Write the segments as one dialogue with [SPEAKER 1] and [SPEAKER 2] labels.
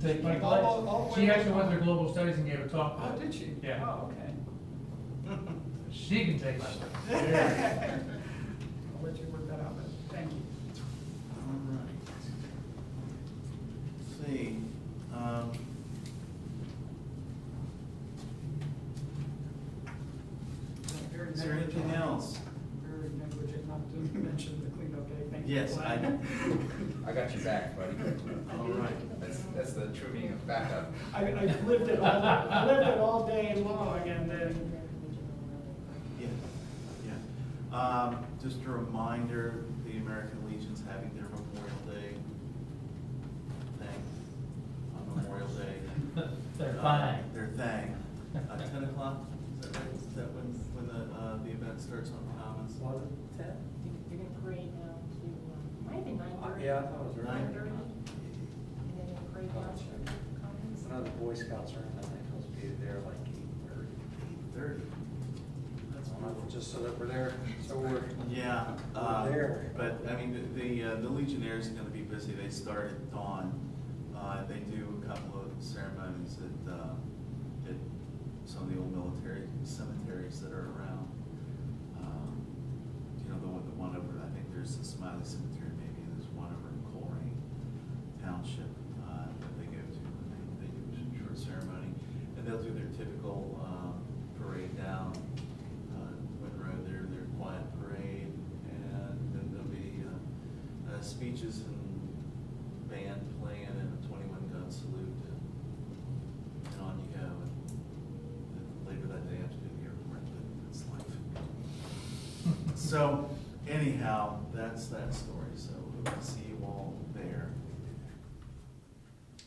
[SPEAKER 1] They- my
[SPEAKER 2] All- all- all
[SPEAKER 1] class-
[SPEAKER 2] the way
[SPEAKER 1] She actually
[SPEAKER 2] up.
[SPEAKER 1] went to global studies and gave a talk.
[SPEAKER 2] Oh, did she?
[SPEAKER 1] Yeah.
[SPEAKER 2] Oh, okay.
[SPEAKER 1] She can take my.
[SPEAKER 2] I'll let you work that out, but thank you.
[SPEAKER 3] All right. Let's See, um.
[SPEAKER 2] Very
[SPEAKER 3] Is there anything
[SPEAKER 2] negligent.
[SPEAKER 3] else?
[SPEAKER 2] Very negligent not to mention the cleanup day, thank you.
[SPEAKER 3] Yes, I-
[SPEAKER 4] I got your back, buddy.
[SPEAKER 3] All right.
[SPEAKER 4] That's, that's the true meaning of backup.
[SPEAKER 2] I, I lived it all, I lived it all day long and then,
[SPEAKER 3] Yeah, yeah. Um, just a reminder, the American Legion's having their Memorial Day thing on Memorial Day.
[SPEAKER 1] They're
[SPEAKER 3] Uh,
[SPEAKER 1] fine.
[SPEAKER 3] Their thing. Uh, ten o'clock, is that right? Is that when, when the, uh, the event starts on the Commons?
[SPEAKER 1] Was
[SPEAKER 3] Ten?
[SPEAKER 5] You're gonna parade now to, um, might have been nine thirty.
[SPEAKER 6] Yeah, I thought it was earlier.
[SPEAKER 5] Nine thirty, and then you'll parade down to the commons.
[SPEAKER 6] One of the Boy Scouts are in, I think, supposed to be there like eight thirty.
[SPEAKER 3] Eight thirty. That's
[SPEAKER 6] Just so that we're there, so we're.
[SPEAKER 3] Yeah,
[SPEAKER 6] We're
[SPEAKER 3] uh,
[SPEAKER 6] there.
[SPEAKER 3] but I mean, the- the, uh, the Legionnaires are gonna be busy, they start at dawn. Uh, they do a couple of ceremonies at, uh, at some of the old military cemeteries that are around. Um, You know, the one, the one over, I think there's the Smiley Cemetery maybe, and there's one over in Colerain Township, uh, that they go to, and they, they do a short ceremony. And they'll do their typical, um, parade down, uh, Wind Road, their, their quiet parade, and then there'll be, uh, uh, speeches and band playing and a twenty-one gun salute, and, and on you go. And then Later that day, I have to do the airport, but that's life. So anyhow, that's that story, so we'll see you all there.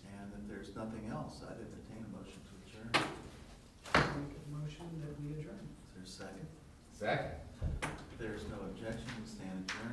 [SPEAKER 3] And if there's nothing else, I'd entertain a motion to adjourn.
[SPEAKER 2] make a motion that we adjourn.
[SPEAKER 3] Is there a second?
[SPEAKER 4] Second?
[SPEAKER 3] If there's no objection, we stand adjourned.